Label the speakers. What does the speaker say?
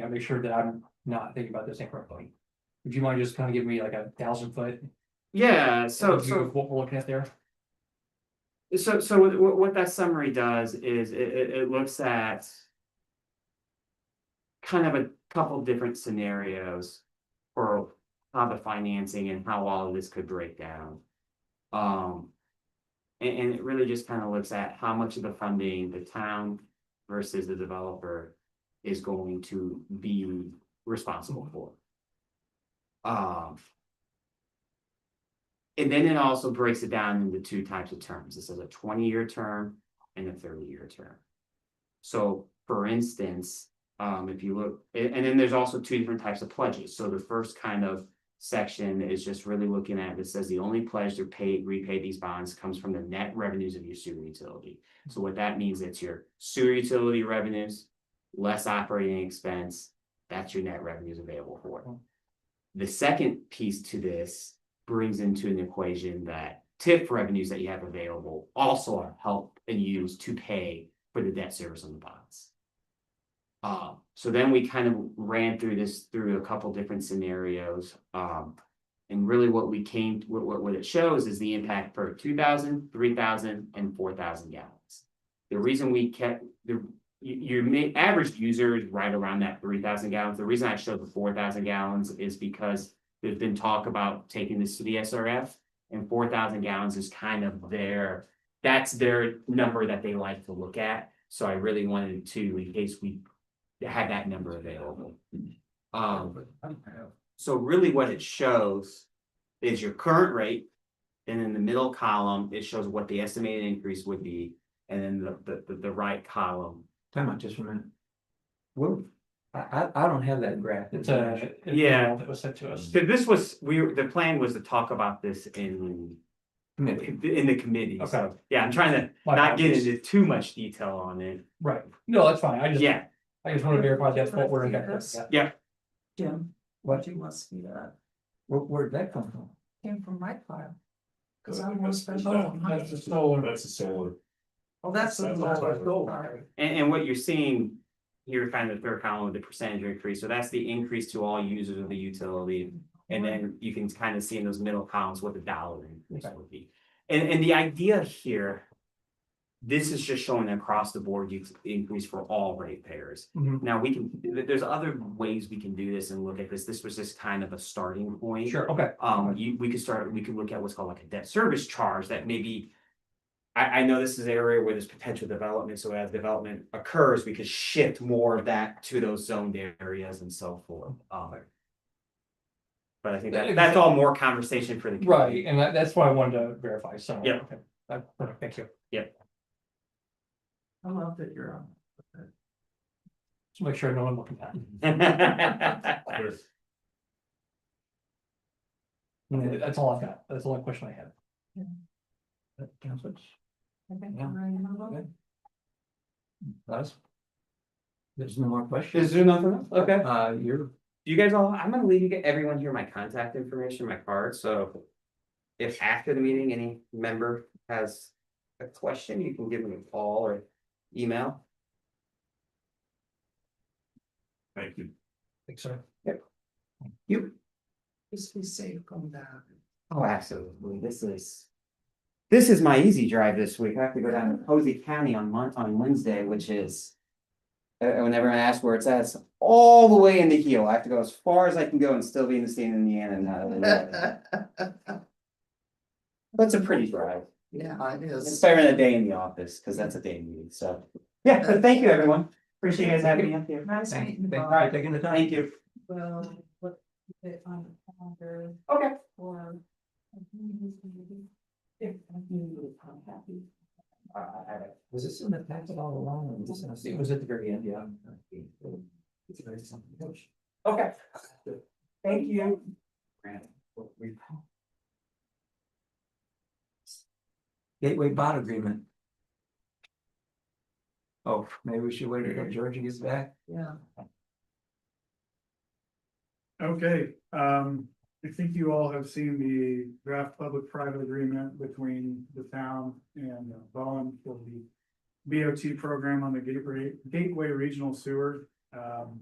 Speaker 1: Yeah, make sure that I'm not thinking about this incorrectly. Would you mind just kind of giving me like a thousand foot?
Speaker 2: Yeah, so,
Speaker 1: overview
Speaker 2: so
Speaker 1: of What we're looking at there?
Speaker 2: So, so what, what, what that summary does is it, it, it looks at kind of a couple different scenarios for how the financing and how all of this could break down. Um, and, and it really just kind of looks at how much of the funding the town versus the developer is going to be responsible for. Um, and then it also breaks it down into two types of terms. This is a twenty-year term and a thirty-year term. So for instance, um, if you look, a- and, then there's also two different types of pledges. So the first kind of section is just really looking at, it says the only pledge to pay, repay these bonds comes from the net revenues of your sewer utility. So what that means, it's your sewer utility revenues, less operating expense, that's your net revenues available for it. The second piece to this brings into an equation that TIF revenues that you have available also are help and used to pay for the debt service on the bonds. Um, so then we kind of ran through this through a couple different scenarios. Um, and really what we came, what, what, what it shows is the impact for 2,000, 3,000, and four thousand gallons. The reason we kept, the, you, your ma- average user is right around that three thousand gallons. The reason I showed the four thousand gallons is because there's been talk about taking this to the SRF. And four thousand gallons is kind of their, that's their number that they like to look at. So I really wanted to, in case we had that number available. Um, so really what it shows is your current rate. And in the middle column, it shows what the estimated increase would be, and then the, the, the, the right column.
Speaker 3: Time out just a minute. Well, I, I, I don't have that graph.
Speaker 1: It's a. it's a
Speaker 2: Yeah.
Speaker 1: model That was sent to us.
Speaker 2: So this was, we, were- the plan was to talk about this in,
Speaker 3: Committee.
Speaker 2: in the committee, so,
Speaker 1: Okay.
Speaker 2: yeah, I'm trying to
Speaker 1: My
Speaker 2: not get
Speaker 1: apologies.
Speaker 2: into too much detail on it,
Speaker 1: Right, no, that's fine, I just,
Speaker 2: yeah.
Speaker 1: I just want to verify that's what we're.
Speaker 4: Yeah.
Speaker 1: Yeah.
Speaker 4: Jim,
Speaker 3: What,
Speaker 4: she wants me to, uh,
Speaker 3: where, where'd that come from?
Speaker 4: came from my file. Cause
Speaker 5: That's-
Speaker 4: I'm more special.
Speaker 5: that's-
Speaker 1: Oh,
Speaker 5: That's the solar. That's the solar.
Speaker 4: Oh, that's. the
Speaker 5: That's
Speaker 4: law.
Speaker 5: all right.
Speaker 4: Sorry.
Speaker 2: And, and what you're seeing here, kind of the third column, the percentage increase, so that's the increase to all users of the utility. And then you can kind of see in those middle columns what the dollar increase would be. And, and the idea here, this is just showing across the board you increase for all ratepayers.
Speaker 1: Mhm.
Speaker 2: Now, we can, th- there's other ways we can do this and look at this, this was just kind of a starting point.
Speaker 1: Sure, okay,
Speaker 2: Um, you, we could start, we could look at what's called like a debt service charge that maybe. I, I know this is an area where there's potential development, so as development occurs, we could shift more of that to those zoned areas and so forth, um. But I think that, that's all more conversation for the.
Speaker 1: right, and that, that's what I wanted to verify, so.
Speaker 2: Yeah.
Speaker 1: okay. Uh, perfect, Thank you.
Speaker 4: I love that you're on.
Speaker 1: Just make sure no one looking at. it.
Speaker 5: There's-
Speaker 1: And That's all I've got, that's the only question I had.
Speaker 3: Uh, Counselors,
Speaker 4: I think
Speaker 3: Yeah.
Speaker 4: I'm ready to move on.
Speaker 3: guys? There's no more questions?
Speaker 2: Is there nothing else? Okay,
Speaker 3: Uh, you're,
Speaker 2: you guys all, I'm gonna leave you, get everyone here my contact information, my card, so. If after the meeting, any member has a question, you can give them a call or email.
Speaker 5: Thank you.
Speaker 1: Thanks, sir.
Speaker 4: Just be safe going down.
Speaker 2: Oh, absolutely. This is. This is my easy drive this week. I have to go down to Posey County on Mon- on Wednesday, which is. uh, Whenever I ask where it's at, it's all the way into heel. I have to go as far as I can go and still be in the state of Indiana. and not Illinois. But it's a pretty drive.
Speaker 4: Yeah, it
Speaker 2: It's
Speaker 4: is.
Speaker 2: better than a day in the office, because that's a day meeting, so. Yeah, but thank you, everyone. Appreciate you guys having me up here.
Speaker 4: Nice
Speaker 3: thank,
Speaker 4: meeting you.
Speaker 3: thank you
Speaker 4: Bob.
Speaker 3: for taking the time.
Speaker 2: Thank you.
Speaker 4: Well, what, it on the calendar
Speaker 2: Okay.
Speaker 4: for. If I'm happy.
Speaker 3: Was this in the packet all along? or was this- It was at the very end, yeah. It's very something.
Speaker 2: Okay. Thank you.
Speaker 3: Gateway bond agreement. Oh, maybe we should wait until Georgia gets back.
Speaker 4: Yeah.
Speaker 6: Okay, um, I think you all have seen the draft public-private agreement between the town and uh, Bowen for the. BOT program on the Gateway, Gateway Regional Sewer, um.